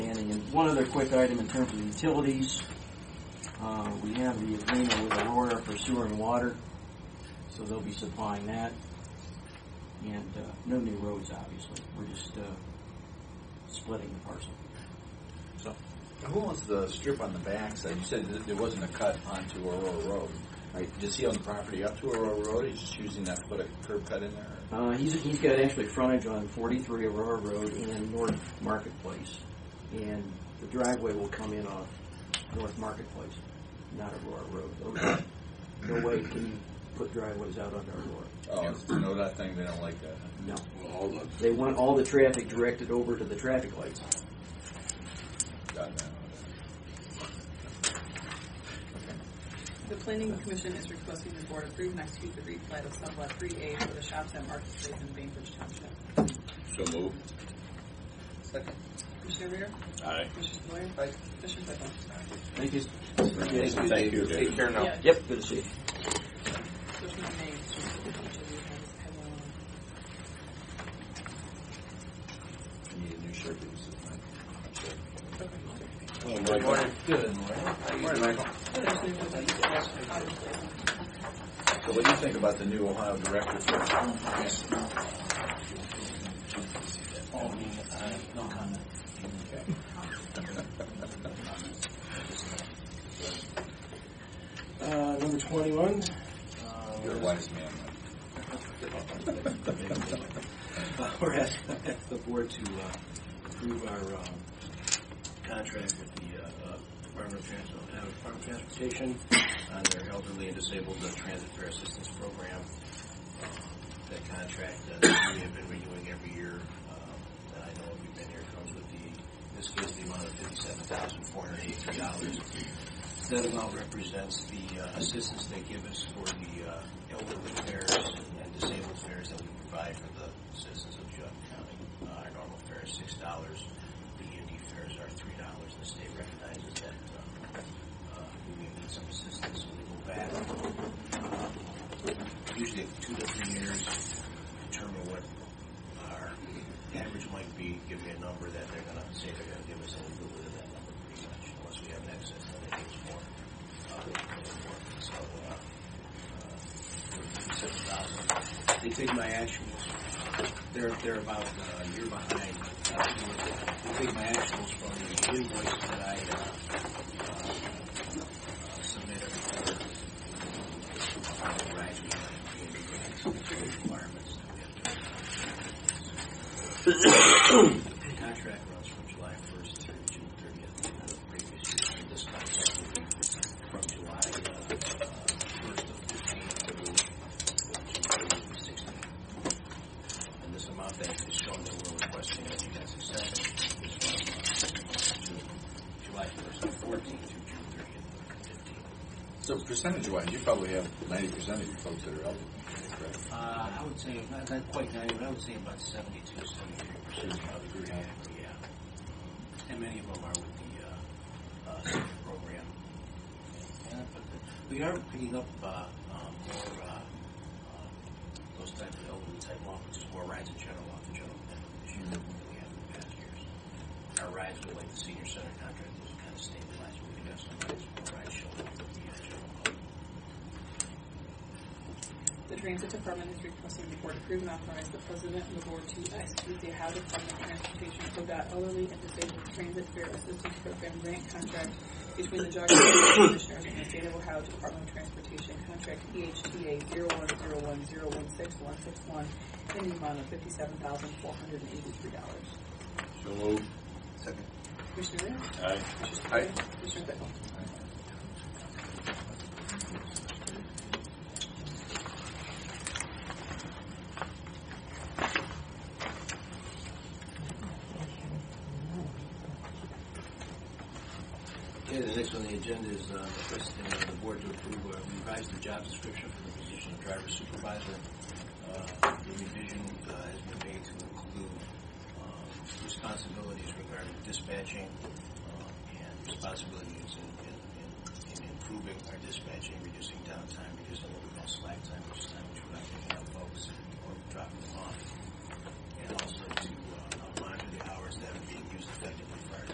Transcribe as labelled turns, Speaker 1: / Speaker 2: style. Speaker 1: One other quick item in terms of utilities. Uh, We have the agreement with Aurora for sewer and water, so they'll be supplying that. And uh, no new roads, obviously. We're just uh, splitting the parcel.
Speaker 2: Who owns the strip on the backside? You said that there wasn't a cut onto Aurora Road, right? Does he own the property up to Aurora Road? He's just using that to put a curb cut in there?
Speaker 1: Uh, He's, he's got actually frontage on 43 Aurora Road and North Marketplace. And the driveway will come in off North Marketplace, not Aurora Road. No way can you put driveways out onto Aurora.
Speaker 2: Oh, it's the NODOT thing, they don't like that.
Speaker 1: No.
Speaker 3: Well, all the,
Speaker 1: They want all the traffic directed over to the traffic lights.
Speaker 2: God, no.
Speaker 4: The planning commission is requesting the board approve and execute the replat of sublot three A for the shops at Marketplace in Bainbridge Township.
Speaker 3: so move.
Speaker 2: Second.
Speaker 4: Commissioner Rea?
Speaker 3: Aye.
Speaker 4: Commissioner Blair?
Speaker 2: Aye.
Speaker 4: Commissioner Claypool?
Speaker 1: Thank you.
Speaker 3: Thank you, David.
Speaker 2: care
Speaker 4: Yeah,
Speaker 1: Yep, good to see you.
Speaker 4: there's no names, just each of you has had one.
Speaker 2: You Need a new shirt. This is fine.
Speaker 3: Well, Michael,
Speaker 2: Good morning. Morning, Michael.
Speaker 4: There's new ones, obviously.
Speaker 2: So what do you think about the new Ohio director for
Speaker 5: Uh, number 21.
Speaker 2: your
Speaker 5: Uh,
Speaker 2: wise man?
Speaker 5: We're asking the board to uh, approve our um, contract with the uh, uh, Department of Trans- uh, Department of Transportation on their elderly and disabled uh, transit fare assistance program. Uh, That contract uh, that we have been renewing every year, um, and I know if we've been here, comes with the, in this case, the amount of $57,483. That amount represents the uh, assistance they give us for the uh, elderly fares and disabled fares that we provide for the citizens of Judd County. Uh, Our normal fare is six dollars, the E and D fares are three dollars. The state recognizes that uh, uh, we may need some assistance, so we go back, uh, usually two to three years, determine what our average might be, give me a number that they're gonna say they're gonna give us, and we go within that number pretty much, unless we have an excess that they give us more. uh, more. So, uh, uh, seven thousand. They take my actuals, they're, they're about uh, a year behind. uh, They take my actuals from the invoice that I, uh, uh, uh, submit every quarter. Uh, Right, we have, we have requirements that we have to the contract runs from July 1st through June 30th of the previous year. And This contract will be from July uh, uh, 1st of 15 through June 30th of 16. And this amount that is shown that we're requesting that you guys accept is from uh, June- July 1st of 14 through June 30th of 15.
Speaker 2: So percentage wise, you probably have ninety percent of your folks that are elderly, correct?
Speaker 5: Uh, I would say, not, not quite 90, but I would say about 72, 73% of the group, yeah. And many of them are with the, uh, uh, senior program. And, but the- We are picking up, uh, um, more, uh, um, those type of elderly type offices, more rides in general, off the general plan this year than we have in the past years. Our rides with like the senior center contract, those kind of stabilized, we do have some rides, more rides showing up with the uh, general public.
Speaker 4: The transit department is requesting the board approve and authorize the president and the board to execute the Ohio Department of Transportation ODOT Elderly and Disabled Transit Fare Assistance Program grant contract between the Geauga County Commissioners and the State of Ohio Department of Transportation Contract E EHTA 01010161161 in the amount of $57,483.
Speaker 3: so move.
Speaker 2: Second.
Speaker 4: Commissioner Rea?
Speaker 3: Aye.
Speaker 4: Commissioner
Speaker 2: Aye.
Speaker 4: Clay? Commissioner Claypool?
Speaker 5: Okay, the next on the agenda is uh, requesting uh, the board to approve, uh, revise the job description for the position of driver supervisor. Uh, The revision uh, has been made to include um, responsibilities regarding dispatching uh, and responsibilities in- in in- in improving our dispatching, reducing downtime, reducing what we call slack time, which is time which we're not picking up folks or dropping them off, and also to uh, monitor the hours that are being used effectively for our